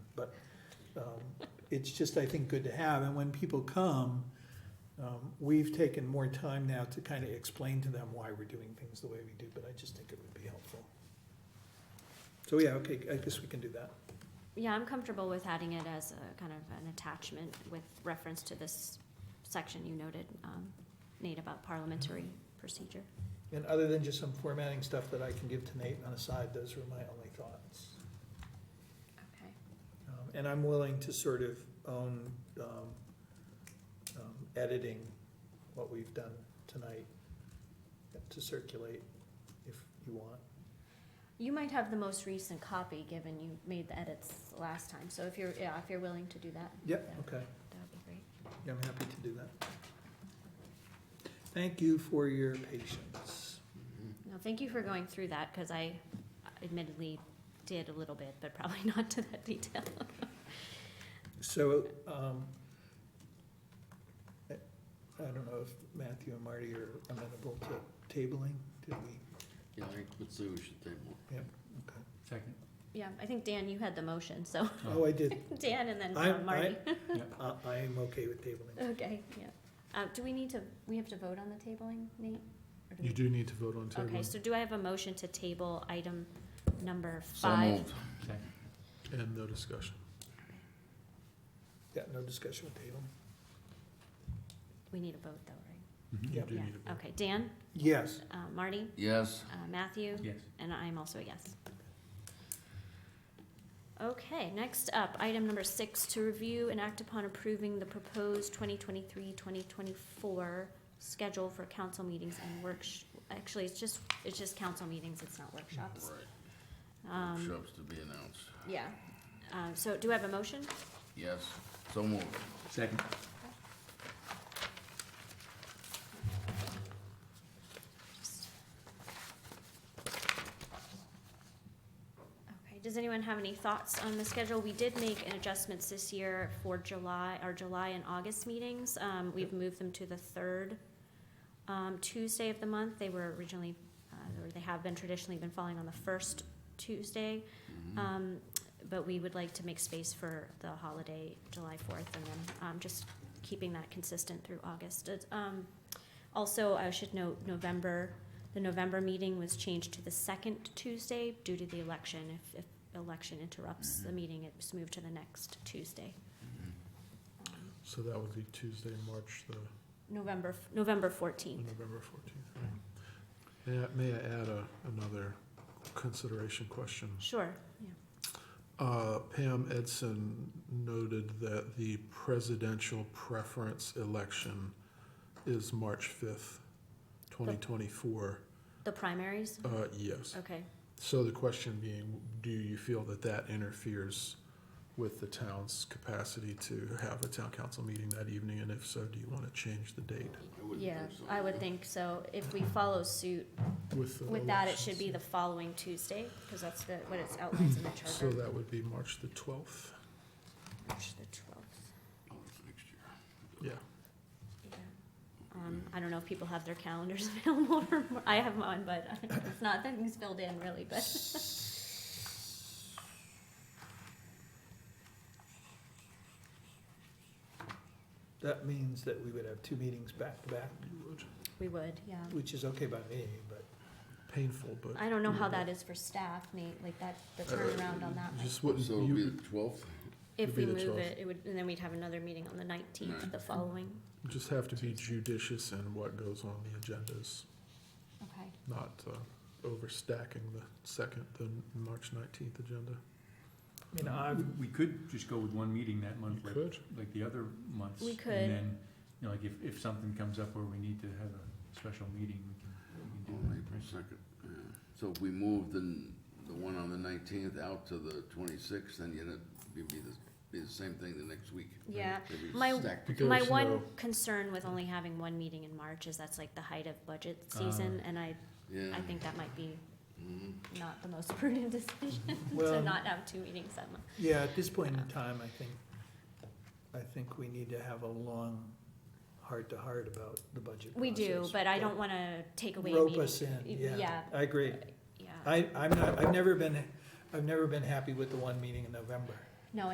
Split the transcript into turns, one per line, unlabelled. but um, it's just, I think, good to have. And when people come, um, we've taken more time now to kind of explain to them why we're doing things the way we do, but I just think it would be helpful. So, yeah, okay, I guess we can do that.
Yeah, I'm comfortable with adding it as a kind of an attachment with reference to this section you noted, um, Nate, about parliamentary procedure.
And other than just some formatting stuff that I can give to Nate on a side, those were my only thoughts.
Okay.
Um, And I'm willing to sort of own um, um, editing what we've done tonight to circulate if you want.
You might have the most recent copy, given you made the edits last time, so if you're, yeah, if you're willing to do that,
Yep, okay,
that would be great.
yeah, I'm happy to do that. Thank you for your patience.
Mm-hmm.
No, thank you for going through that, because I admittedly did a little bit, but probably not to that detail.
So, um, I I don't know if Matthew and Marty are amenable to tabling, did we?
Yeah, I think, let's say we should table.
Second.
Yeah, I think Dan, you had the motion, so,
Oh, I did,
Dan and then
I-
uh, Marty.
I, I am okay with tabling.
Okay, yeah. Uh, do we need to, we have to vote on the tabling, Nate? Or do we-
You do need to vote on
Okay,
tabling,
so do I have a motion to table item number
So
five?
moved.
Second.
and no discussion.
Yeah, no discussion with tabling.
We need a vote though, right?
You
Mm-hmm.
Yep.
do
Yeah,
need to vote.
Okay, Dan,
Yes.
uh, Marty,
Yes,
uh, Matthew,
Yes.
and I'm also a yes. Okay, next up, item number six, to review and act upon approving the proposed 2023-2024 schedule for council meetings and worksh, actually, it's just, it's just council meetings, it's not workshops.
right,
Um,
workshops to be announced.
Yeah, um, so do I have a motion?
Yes, so moved.
Second.
Okay, does anyone have any thoughts on the schedule? We did make an adjustments this year for July, our July and August meetings. Um, we've moved them to the third, um, Tuesday of the month. They were originally, uh, or they have been traditionally been falling on the first Tuesday.
Mhm.
Um, but we would like to make space for the holiday, July fourth, and then, um, just keeping that consistent through August. It's, Um, also, I should note, November, the November meeting was changed to the second Tuesday due to the election. If, if election interrupts the
Mhm.
meeting, it's moved to the next Tuesday.
Mhm.
Um,
So that would be Tuesday, March the,
November, f- November
the
fourteenth.
Mm-hmm.
November fourteenth, right? May I, may I add a, another consideration question?
Sure, yeah.
Uh, Pam Edson noted that the presidential preference election is March fifth, twenty twenty-four.
The primaries?
Uh, yes.
Okay.
So the question being, do you feel that that interferes with the town's capacity to have a town council meeting that evening? And if so, do you want to change the date
I wouldn't
Uh, Yeah,
think so.
I would think so. If we follow suit
with the
with that, it
elections?
should be the following Tuesday, because that's the, what it's outlines in the
So
charter.
that would be March the twelfth,
March the twelfth,
Oh, it's next year.
yeah.
yeah. Um, I don't know if people have their calendars available, or, I have mine, but it's not, that thing's filled in really, but.
That means that we would have two meetings back to back,
You would.
We would, yeah.
which is okay by me, but
Painful, but.
I don't know how that is for staff, Nate, like that, the turnaround on that.
You
like,
Uh, Just wouldn't,
So it'll be
you
the twelfth?
If
it'd
we
be the
move
12th.
it, it would, and then we'd have another meeting on the nineteenth,
Right.
the following,
just have to be judicious in what goes on the agendas,
okay.
not uh, overstacking the second, the March nineteenth agenda.
You know, I've,
Um, We could just go with one meeting that month,
You
like,
could.
like the other months.
We could.
And then, you know, like if, if something comes up where we need to have a special meeting, we can, we can do
On
that.
April
right?
second, yeah. So if we move the, the one on the nineteenth out to the twenty-sixth, then you'd it'd be the, be the same thing the next week.
Yeah.
It'd be
My-
stacked
Because-
My
There's
one
no-
concern with only having one meeting in March is that's like the height of budget
Uh,
season, and I,
Yeah.
I think that might be
Mhm.
not the most prudent decision to
Well-
not have two meetings that month.
yeah, at this point in time, I think, I think we need to have a long heart-to-heart about the budget
We do,
process.
but I don't wanna take away a
Rope
meeting.
us in,
Y-
yeah,
yeah.
I agree.
Yeah,
I, I'm not, I've never been, I've never been happy with the one meeting in November.